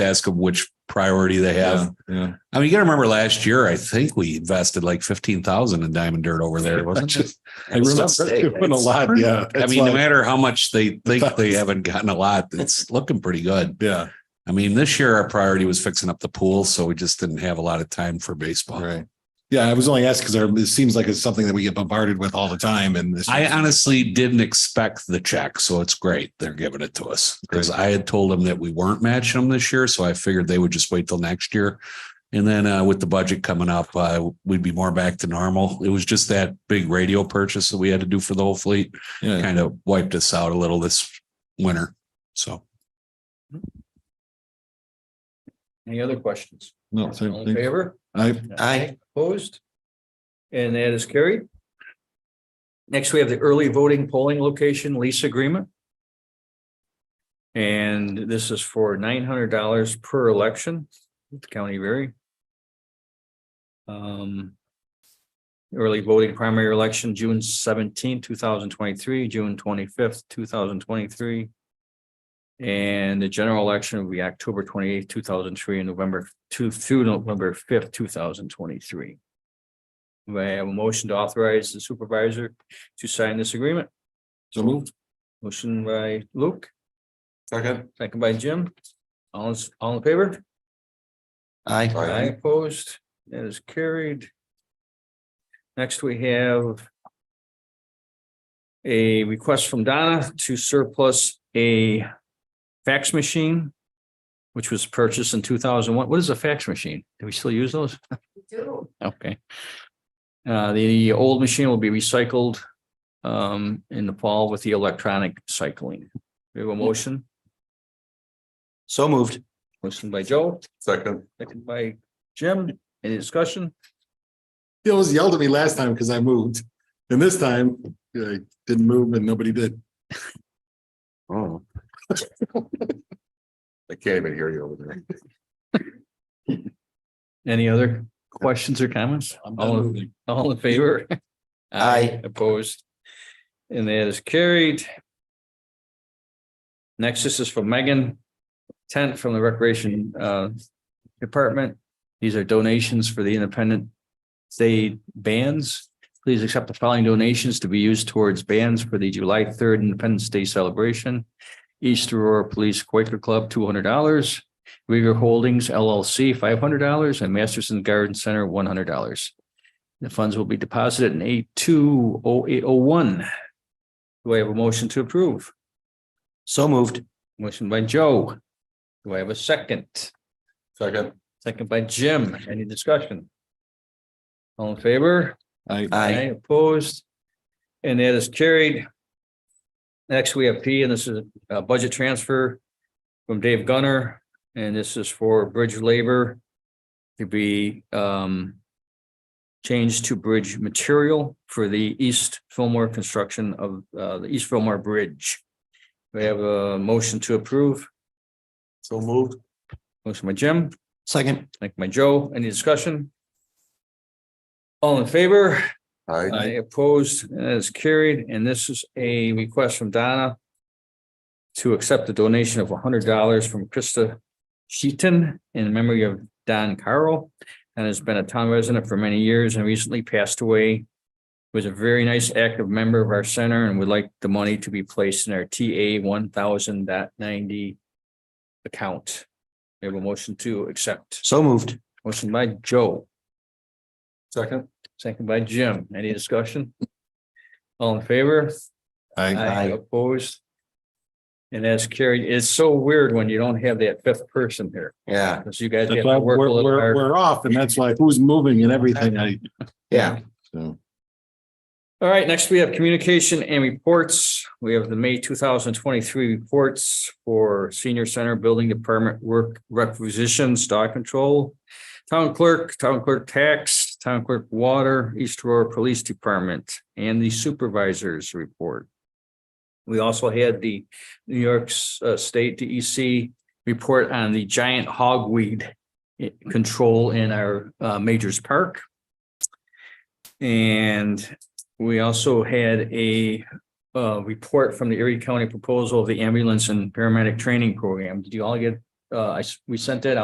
ask them which priority they have. yeah. I mean, you got to remember last year, I think we invested like 15,000 in diamond dirt over there, wasn't it? I remember It's- doing a lot. Yeah. I It's mean, no like- matter how much they think they haven't gotten a lot, it's looking pretty good. yeah. I mean, this year our priority was fixing up the pool, so we just didn't have a lot of time for baseball. Right. Yeah. I was only asked because it seems like it's something that we get bombarded with all the time. And this, I honestly didn't expect the check, so it's great they're giving it to us because I had told them that we weren't matching them this year, so I figured they would just wait till next year. And then uh, with the budget coming up, uh, we'd be more back to normal. It was just that big radio purchase that we had to do for the whole fleet yeah. kind of wiped us out a little this winter. So Any other questions? No, so All in favor? I, Aye. Opposed? And that is carried. Next, we have the early voting polling location lease agreement. And this is for nine hundred dollars per election with the county very. Um. Early voting primary election, June 17, thousand twenty-three, June twenty-fifth, two thousand twenty-three. And the general election will be October twenty-eighth, two thousand three, and November two through November fifth, two thousand twenty-three. Do I have a motion to authorize the supervisor to sign this agreement? so moved. Motion by Luke. Second. Second by Jim. All, is- all in favor? Aye. I opposed, that is carried. Next, we have a request from Donna to surplus a fax machine, which was purchased in two thousand one. What is a fax machine? Do we still use those? do. Okay. Uh, the old machine will be recycled um in the fall with the electronic cycling. We have a motion, So moved. motion by Joe. Second. Second by Jim. Any discussion? He always yelled at me last time because I moved. And this time I didn't move and nobody did. Oh. I can't even hear you over there. Any other questions or comments? All in- All in favor? Aye. Opposed? And that is carried. Next, this is from Megan, tent from the Recreation uh, Department. These are donations for the Independent Day bands. Please accept the following donations to be used towards bands for the July third Independence Day celebration. East Aurora Police Quaker Club, two hundred dollars. Rieger Holdings LLC, five hundred dollars, and Masterson Garden Center, one hundred dollars. The funds will be deposited in eight two oh eight oh one. Do I have a motion to approve? So moved. Motion by Joe. Do I have a second? Second. Second by Jim. Any discussion? All in favor? I, Uh, Aye. Opposed? And that is carried. Next, we have P, and this is a budget transfer from Dave Gunner, and this is for bridge labor to be um changed to bridge material for the East Fillmore construction of uh the East Fillmore Bridge. We have a motion to approve. so moved. Motion by Jim. Second. Thank my Joe. Any discussion? All in favor? I opposed, and that is carried, and this is a request from Donna to accept the donation of hundred dollars from Krista Sheaton in memory of Don Carroll, and has been a town resident for many years and recently passed away. Was a very nice active member of our center and would like the money to be placed in our TA one thousand account. We have a motion to accept. So moved. Motion by Joe. Second. Second by Jim. Any discussion? All in favor? I, Aye. Opposed? And that's carried. It's so weird when you don't have that fifth person here, Yeah. because you guys have that's to why work we're, a little we're, hard. we're off and that's why who's moving and everything. I, Yeah. so. All right, next we have communication and reports. We have the May two thousand twenty-three reports for senior center building department work requisitions, dog control, town clerk, town clerk tax, town clerk water, East Aurora Police Department, and the supervisors report. We also had the New York S- uh, State DEC report on the giant hogweed eh, control in our uh, Majors Park. And we also had a uh report from the Erie County proposal of the ambulance and paramedic training program. Did you all get uh, I, s- we sent that out.